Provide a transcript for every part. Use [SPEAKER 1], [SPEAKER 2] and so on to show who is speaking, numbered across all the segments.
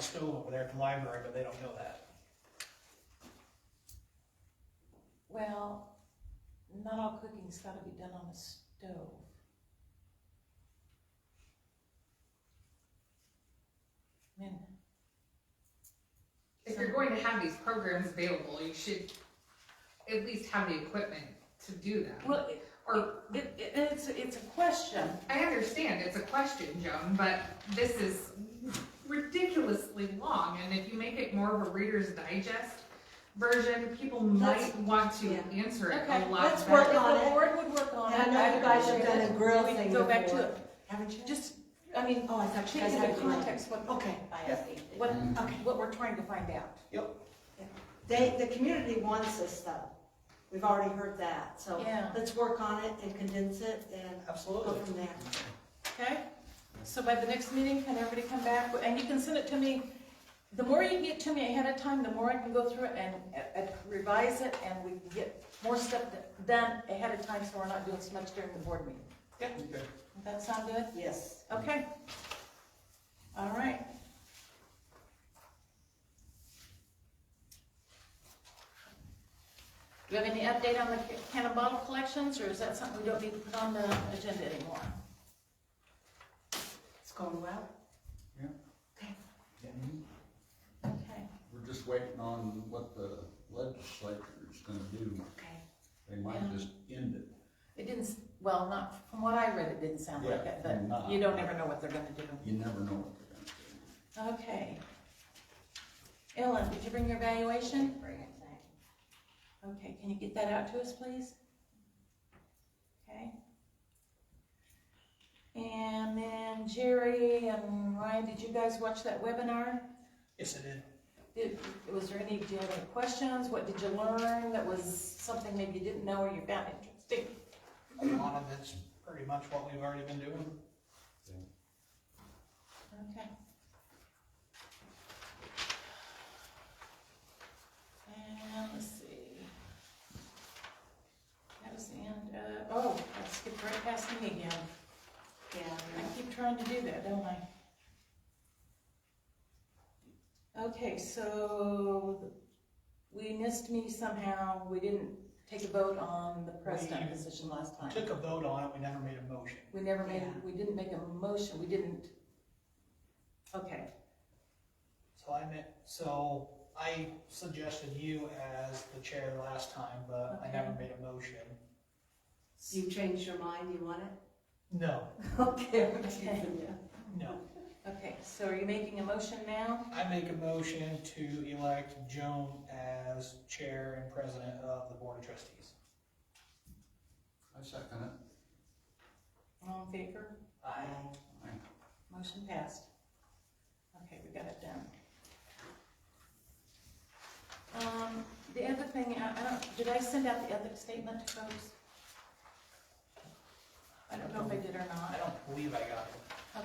[SPEAKER 1] stove over there at the library, but they don't know that.
[SPEAKER 2] Well, not all cooking's gotta be done on a stove. I mean,
[SPEAKER 3] If you're going to have these programs available, you should at least have the equipment to do them.
[SPEAKER 2] Well, it-
[SPEAKER 3] Or,
[SPEAKER 2] it, it, it's, it's a question.
[SPEAKER 3] I understand, it's a question, Joan, but this is ridiculously long, and if you make it more of a Reader's Digest version, people
[SPEAKER 4] Let's-
[SPEAKER 3] might want to
[SPEAKER 4] yeah.
[SPEAKER 3] answer it
[SPEAKER 2] Okay,
[SPEAKER 3] a lot
[SPEAKER 4] let's
[SPEAKER 3] better.
[SPEAKER 4] work on
[SPEAKER 2] The
[SPEAKER 4] it.
[SPEAKER 2] board would work on it.
[SPEAKER 4] And I know you guys have done a grill
[SPEAKER 2] We
[SPEAKER 4] thing
[SPEAKER 2] Go back to
[SPEAKER 4] before.
[SPEAKER 2] it.
[SPEAKER 4] Haven't you?
[SPEAKER 2] Just, I mean,
[SPEAKER 4] Oh, I thought you guys
[SPEAKER 2] taking
[SPEAKER 4] had
[SPEAKER 2] the
[SPEAKER 4] a comment.
[SPEAKER 2] context, what,
[SPEAKER 4] Okay, I asked Amy.
[SPEAKER 2] what, what we're trying to find out.
[SPEAKER 4] They, the community wants this though. We've already heard that, so
[SPEAKER 2] Yeah.
[SPEAKER 4] let's work on it and condense it and go
[SPEAKER 1] Absolutely.
[SPEAKER 4] from there.
[SPEAKER 2] Okay, so by the next meeting, can everybody come back, and you can send it to me, the more you get to me ahead of time, the more I can go through it and uh, uh, revise it, and we can get more stuff d- done ahead of time, so we're not doing so much during the board meeting.
[SPEAKER 1] Okay.
[SPEAKER 2] Does that sound good?
[SPEAKER 4] Yes.
[SPEAKER 2] Okay. All right. Do you have any update on the ca- can and bottle collections, or is that something we don't need to put on the agenda anymore?
[SPEAKER 4] It's going well.
[SPEAKER 2] Okay.
[SPEAKER 5] We're just waiting on what the legislature is gonna do.
[SPEAKER 4] Okay.
[SPEAKER 5] They might
[SPEAKER 2] Yeah.
[SPEAKER 5] just end it.
[SPEAKER 2] It didn't, s- well, not, from what I read, it didn't sound like
[SPEAKER 5] Yeah,
[SPEAKER 2] it, but
[SPEAKER 5] not.
[SPEAKER 2] you don't ever know what they're gonna do.
[SPEAKER 5] You never know what they're gonna do.
[SPEAKER 2] Okay. Ellen, did you bring your valuation?
[SPEAKER 4] Bring it back.
[SPEAKER 2] Okay, can you get that out to us, please? Okay. And then Jerry and Ryan, did you guys watch that webinar?
[SPEAKER 1] Yes, I did.
[SPEAKER 2] Did, was there any, do you have any questions? What did you learn that was something maybe you didn't know or you found interesting?
[SPEAKER 1] A lot of it's pretty much what we've already been doing.
[SPEAKER 2] Okay. And let's see. That was the end of, oh, I skipped right past me again.
[SPEAKER 4] Yeah.
[SPEAKER 2] I keep trying to do that, don't I? Okay, so we missed me somehow. We didn't take a vote on the president
[SPEAKER 1] We
[SPEAKER 2] position last time.
[SPEAKER 1] Took a vote on it, we never made a motion.
[SPEAKER 2] We never made,
[SPEAKER 4] Yeah.
[SPEAKER 2] we didn't make a motion, we didn't. Okay,
[SPEAKER 1] So I meant, so I suggested you as the chair last time, but I never made a motion.
[SPEAKER 4] You changed your mind, you want it?
[SPEAKER 1] No,
[SPEAKER 4] Okay.
[SPEAKER 2] Okay.
[SPEAKER 1] no.
[SPEAKER 2] Okay, so are you making a motion now?
[SPEAKER 1] I make a motion to elect Joan as chair and president of the board of trustees.
[SPEAKER 5] I second it.
[SPEAKER 2] All in favor?
[SPEAKER 1] Aye.
[SPEAKER 2] Motion passed. Okay, we got it done. Um, the other thing, I, I don't, did I send out the ethics statement to folks? I don't know if I did or not.
[SPEAKER 1] I don't believe I got it.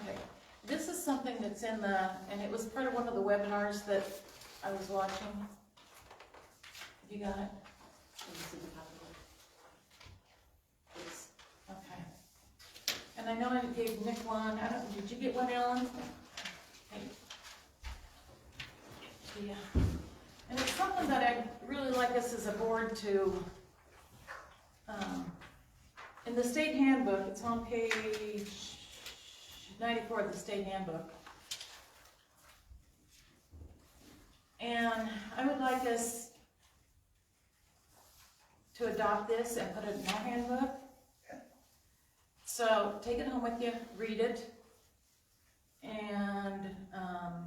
[SPEAKER 2] Okay, this is something that's in the, and it was part of one of the webinars that I was watching. You got it? Okay. And I know I gave Nick one, I don't, did you get one, Ellen? Hey. Yeah. And it's something that I'd really like us as a board to, um, in the state handbook, it's on page ninety-four of the state handbook. And I would like us to adopt this and put it in our handbook. So take it home with you, read it, and um,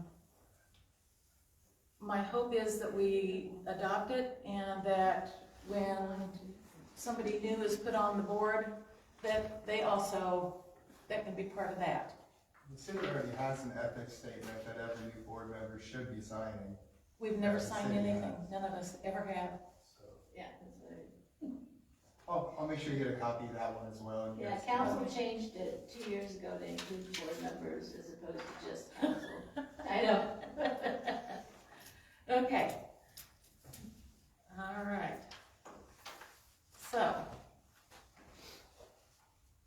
[SPEAKER 2] my hope is that we adopt it and that when somebody new is put on the board, that they also, that can be part of that.
[SPEAKER 6] The city already has an ethics statement that every new board member should be signing,
[SPEAKER 2] We've never signed anything, none of us ever have.
[SPEAKER 6] so.
[SPEAKER 7] Yeah,
[SPEAKER 6] Oh, I'll make sure you get a copy of that one as well. and you
[SPEAKER 7] yeah,
[SPEAKER 6] guys can-
[SPEAKER 7] council changed it two years ago to include board members as opposed to just council. I know.
[SPEAKER 2] Okay. All right. So.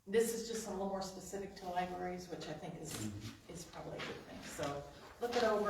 [SPEAKER 2] This is just a little more specific to libraries, which I think is, is probably a good thing, so look it over.